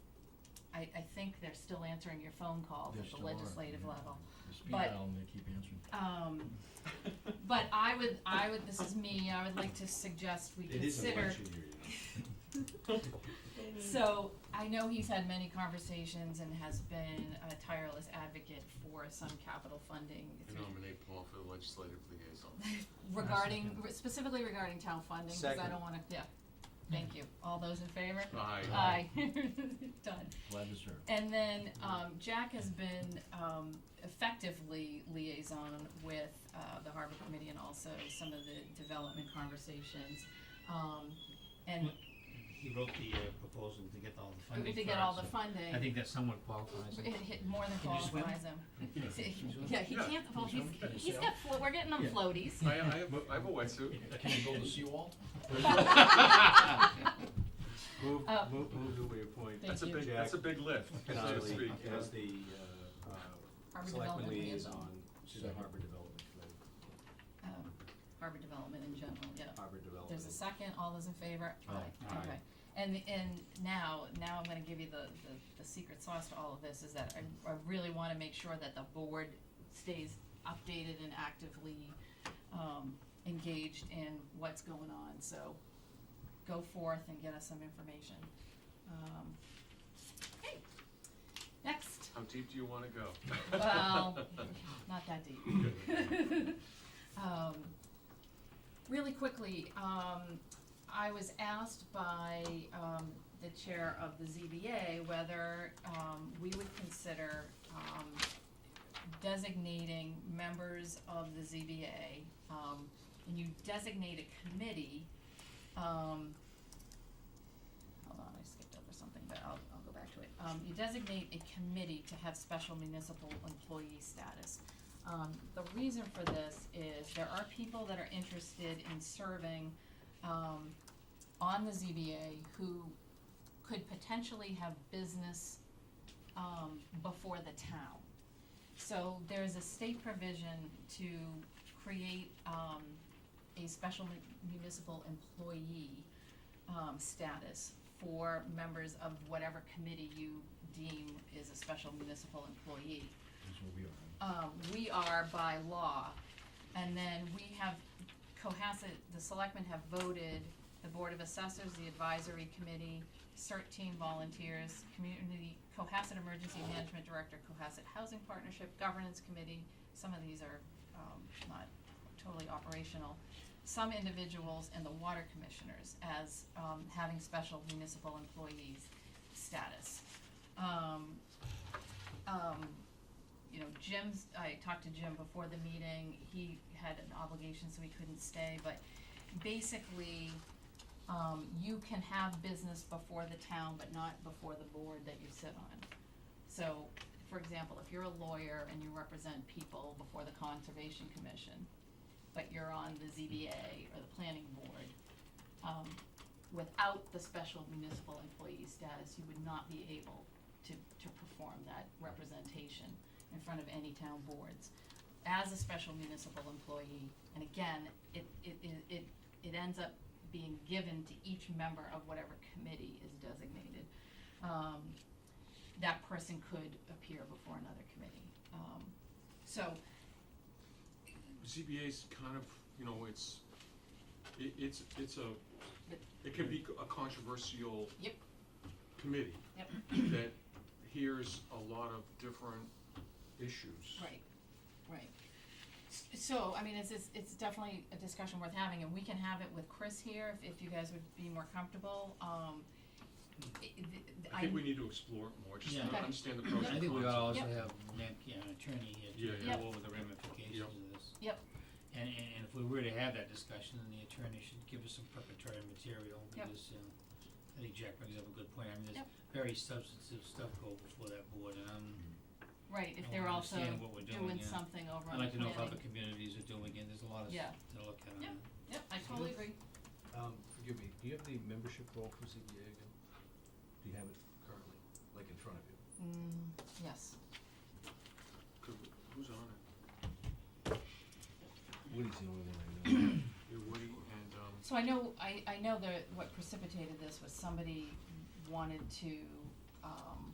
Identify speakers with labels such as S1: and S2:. S1: I, I think they're still answering your phone calls
S2: They
S1: at the
S2: still are,
S1: legislative
S2: yeah.
S1: level.
S2: The speed
S1: But-
S2: dial, and they keep answering.
S1: Um, but I would, I would, this is me, I would like to suggest we
S3: It is an
S1: consider,
S3: election year, you know.
S1: so, I know he's had many conversations and has been a tireless advocate for some capital funding
S4: I
S1: through
S4: nominate Paul for legislative liaison.
S1: regarding,
S2: second.
S1: re- specifically regarding town funding, cause I
S3: Second.
S1: don't wanna, yeah, thank you, all those in favor?
S4: Aye.
S1: Aye. Done.
S2: Glad to serve.
S1: And then, um, Jack has been, um, effectively liaison with, uh, the harbor committee and also some of the development conversations. Um, and
S5: He wrote the uh, proposal to get all the funding
S1: if
S5: for
S1: they get all
S5: it,
S1: the
S5: so
S1: funding,
S5: I think that somewhat qualifies
S1: it
S5: it.
S1: hit more than
S5: Can you swim?
S1: qualifies him. See,
S2: swim?
S1: Yeah, he can't, well, he's,
S2: Can you
S1: he's
S2: sail?
S1: got, flo- we're getting them
S5: Yeah.
S1: floaties.
S4: I, I have, a- I have a wetsuit.
S2: Can you go to Seawall?
S3: Move,
S1: Uh,
S3: move, move to reappoint.
S1: Thank
S4: That's a
S1: you.
S4: big, that's a big lift, so to
S3: Connolly
S4: speak.
S3: as the, uh, uh,
S1: Harbor
S3: selectman
S1: Development
S3: liaison
S1: Liaison.
S3: to the harbor development committee,
S1: Um, harbor development in general, yeah.
S3: harbor development.
S1: There's a second, all those in favor?
S2: Aye.
S5: Aye.
S1: Okay, and, and now, now I'm gonna give you the, the, the secret sauce to all of this, is that I, I really wanna make sure that the board stays updated and actively, um, engaged in what's going on, so go forth and get us some information. Um, okay, next,
S4: How deep do you wanna go?
S1: well, not that deep. Um, really quickly, um, I was asked by, um, the chair of the ZBA whether, um, we would consider, um, designating members of the ZBA, um, and you designate a committee, um, hold on, I skipped over something, but I'll, I'll go back to it. Um, you designate a committee to have special municipal employee status. Um, the reason for this is there are people that are interested in serving, um, on the ZBA who could potentially have business, um, before the town. So there's a state provision to create, um, a special mu- municipal employee, um, status for members of whatever committee you deem is a special municipal employee.
S2: That's what we are.
S1: Um, we are by law, and then we have, Cohasset, the selectmen have voted, the Board of Assessors, the advisory committee, CERT team volunteers, community, Cohasset Emergency Management Director, Cohasset Housing Partnership, Governance Committee, some of these are, um, not totally operational. Some individuals and the water commissioners as, um, having special municipal employees status. Um, um, you know, Jim's, I talked to Jim before the meeting, he had an obligation, so he couldn't stay, but basically, um, you can have business before the town, but not before the board that you sit on. So, for example, if you're a lawyer and you represent people before the Conservation Commission, but you're on the ZBA or the planning board, um, without the special municipal employee status, you would not be able to, to perform that representation in front of any town boards as a special municipal employee. And again, it, it, it- it, it ends up being given to each member of whatever committee is designated. Um, that person could appear before another committee. Um, so,
S4: ZBA's kind of, you know, it's, it, it's, it's a, it can be a controversial
S1: Yep.
S4: committee
S1: Yep.
S4: that hears a lot of different issues.
S1: Right, right. S- So, I mean, it's, it's, it's definitely a discussion worth having, and we can have it with Chris here, if, if you guys would be more comfortable, um, i- i- th-
S4: I think we need to explore it more, just to
S5: Yeah.
S1: Okay.
S4: understand the pros and cons.
S5: I think we ought to also
S1: Yep.
S5: have Nick, you know, attorney here
S4: Yeah,
S5: to
S4: yeah.
S5: go over the ramifications
S4: Yep.
S5: of this.
S1: Yep.
S5: And, and, and if we were to have that discussion, then the attorney should give us some preparatory material,
S1: Yep.
S5: because, you know, I think Jack brings up a good point, I mean,
S1: Yep.
S5: there's very substantive stuff go before that board, and I'm,
S4: Mm-hmm.
S1: Right, if
S5: I
S1: they're
S5: wanna
S1: also
S5: understand what we're doing,
S1: doing
S5: yeah.
S1: something over on
S5: I'd
S1: the
S5: like to know
S1: planning.
S5: if other communities are doing it, there's a lot of
S1: Yeah.
S5: stuff to look at on
S1: Yep.
S5: that.
S1: Yep, I totally agree,
S2: Um, forgive me, do you have the membership role for ZBA again? Do you have it currently, like in front of you?
S1: mm, yes,
S4: Could- Who's on it?
S2: Woody's the only one I know.
S4: Yeah, Woody and, um,
S1: so I know, I, I know that what precipitated this was somebody wanted to um,